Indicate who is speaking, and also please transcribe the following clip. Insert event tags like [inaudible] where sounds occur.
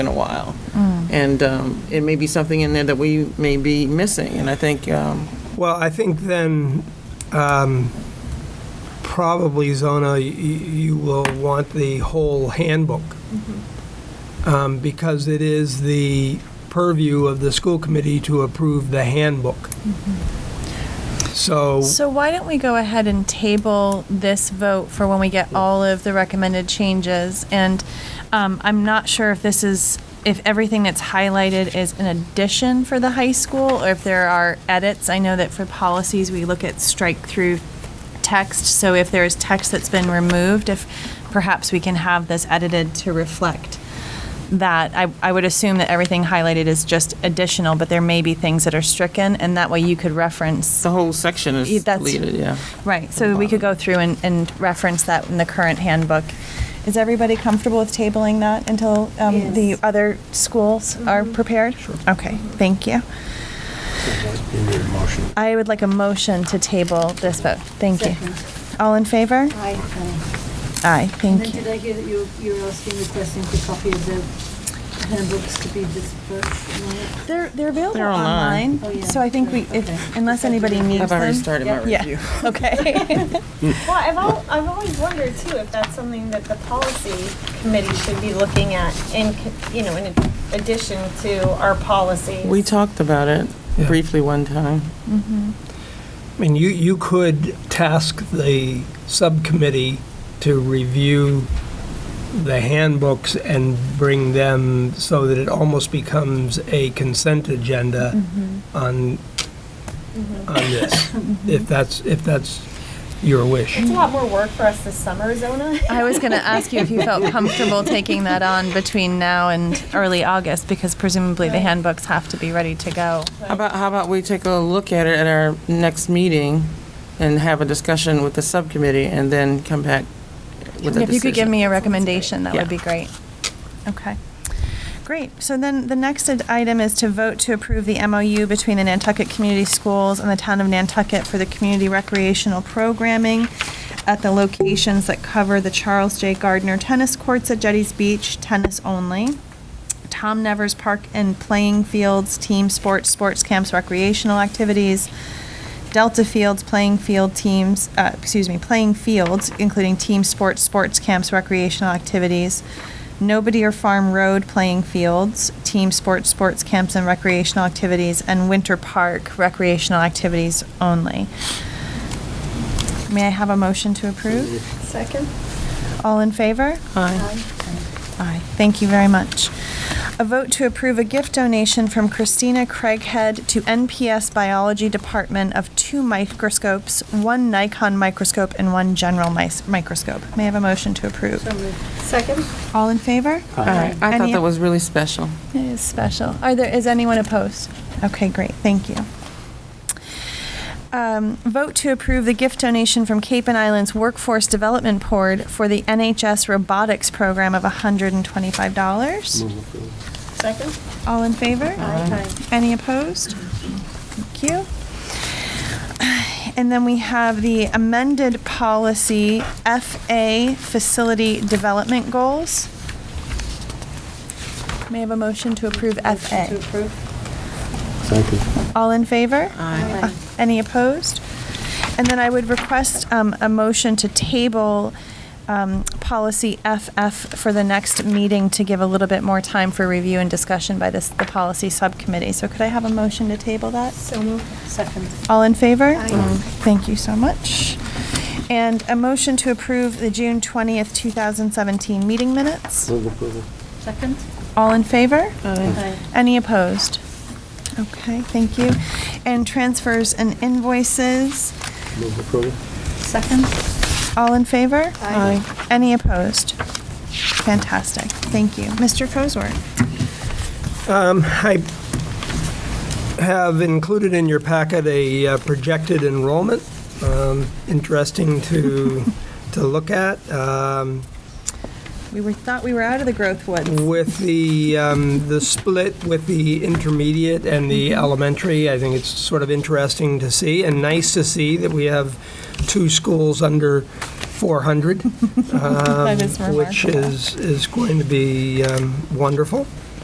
Speaker 1: in a while.
Speaker 2: Mm.
Speaker 1: And um, it may be something in there that we may be missing, and I think, um,
Speaker 3: Well, I think then, um, probably, Zona, y- you will want the whole handbook, Um, because it is the purview of the school committee to approve the handbook. So,
Speaker 2: So why don't we go ahead and table this vote for when we get all of the recommended changes? And um, I'm not sure if this is, if everything that's highlighted is an addition for the high school or if there are edits. I know that for policies, we look at strike-through text. So if there is text that's been removed, if perhaps we can have this edited to reflect that I, I would assume that everything highlighted is just additional, but there may be things that are stricken, and that way you could reference
Speaker 1: the whole section is
Speaker 2: Yeah, that's-
Speaker 1: deleted, yeah.
Speaker 2: Right, so we could go through and, and reference that in the current handbook. Is everybody comfortable with tabling that until um, the other schools are
Speaker 4: Mm-hmm.
Speaker 2: prepared? Okay, thank you.
Speaker 5: You need a motion.
Speaker 2: I would like a motion to table this vote. Thank you. All in favor?
Speaker 4: Aye. aye.
Speaker 2: Aye,
Speaker 4: And then
Speaker 2: thank
Speaker 4: did
Speaker 2: you.
Speaker 4: I hear that you, you were asking, requesting the copy of the handbooks to be dispersed? and all that?
Speaker 2: They're, they're available
Speaker 1: They're online.
Speaker 4: Oh,
Speaker 2: online,
Speaker 4: yeah.
Speaker 2: so I think we,
Speaker 4: Okay.
Speaker 2: if, unless anybody needs
Speaker 1: I've already
Speaker 2: them.
Speaker 1: started my
Speaker 2: Yeah.
Speaker 1: review. [laughs]
Speaker 2: Okay.
Speaker 6: Well, I've, al- I've always wondered too if that's something that the policy committee should be looking at in, co- you know, in addition to our policies.
Speaker 1: We talked about it
Speaker 3: Yeah.
Speaker 1: briefly one time.
Speaker 3: I mean, you, you could task the subcommittee to review the handbooks and bring them so that it almost becomes a consent agenda
Speaker 6: Mm-hmm.
Speaker 3: on, on
Speaker 6: [coughs]
Speaker 3: this, if that's, if that's your wish.
Speaker 6: It's a lot more work for us this summer, Zona.
Speaker 2: I was going to ask you if you felt comfortable taking that on between now and early August, because presumably the handbooks have to be ready to go.
Speaker 1: How about, how about we take a look at it at our next meeting and have a discussion with the subcommittee and then come back with a decision?
Speaker 2: If you could give me a recommendation, that
Speaker 1: Yeah.
Speaker 2: would be great. Okay. Great. So then the next ad- item is to vote to approve the MOU between the Nantucket Community Schools and the Town of Nantucket for the community recreational programming at the locations that cover the Charles J. Gardner Tennis Courts at Jetty's Beach, tennis only. Tom Nevers Park and Playing Fields, team sports, sports camps, recreational activities, Delta Fields, playing field teams, uh, excuse me, playing fields, including team sports, sports camps, recreational activities, Nobody or Farm Road playing fields, team sports, sports camps, and recreational activities, and Winter Park recreational activities only. May I have a motion to approve?
Speaker 6: Second?
Speaker 2: All in favor?
Speaker 1: Aye.
Speaker 2: Aye, thank you very much. A vote to approve a gift donation from Christina Craighead to NPS Biology Department of two microscopes, one Nikon microscope and one general mice- microscope. May I have a motion to approve?
Speaker 6: Second?
Speaker 2: All in favor?
Speaker 1: Aye. I thought
Speaker 2: Any-
Speaker 1: that was really special.
Speaker 2: It is special. Are there, is anyone opposed? Okay, great, thank you. Um, vote to approve the gift donation from Cape and Islands Workforce Development Board for the NHS Robotics Program of $125.
Speaker 6: Second?
Speaker 2: All in favor?
Speaker 6: Aye.
Speaker 2: Any opposed? Thank you. And then we have the amended policy FA Facility Development Goals. May I have a motion to approve
Speaker 4: Motion To
Speaker 2: FA?
Speaker 4: approve?
Speaker 5: Second.
Speaker 2: All in favor? Uh,
Speaker 1: Aye.
Speaker 4: Aye.
Speaker 2: Any opposed? And then I would request um, a motion to table um, policy FF for the next meeting to give a little bit more time for review and discussion by this, the policy subcommittee. So could I have a motion to table that?
Speaker 4: So moved. Second.
Speaker 2: All in favor?
Speaker 4: Aye.
Speaker 2: Thank you so much. And a motion to approve the June 20th, 2017 meeting minutes.
Speaker 5: Move approval.
Speaker 4: Second?
Speaker 2: All in favor?
Speaker 4: Aye.
Speaker 2: Any opposed? Okay, thank you. And transfers and invoices.
Speaker 5: Move approval.
Speaker 4: Second?
Speaker 2: All in favor?
Speaker 4: Aye.
Speaker 2: Any opposed? Fantastic. Thank you. Mr. Cosworth?
Speaker 3: Um, I have included in your packet a uh, projected enrollment, um, interesting
Speaker 6: [laughs]
Speaker 3: to, to look at. Um,
Speaker 2: We were, thought we were out of the growth woods.
Speaker 3: With the, um, the split with the intermediate and the elementary, I think it's sort of interesting to see and nice to see that we have two schools under 400. um,
Speaker 2: is
Speaker 3: Which
Speaker 2: remarkable.
Speaker 3: is, is going to be um, wonderful.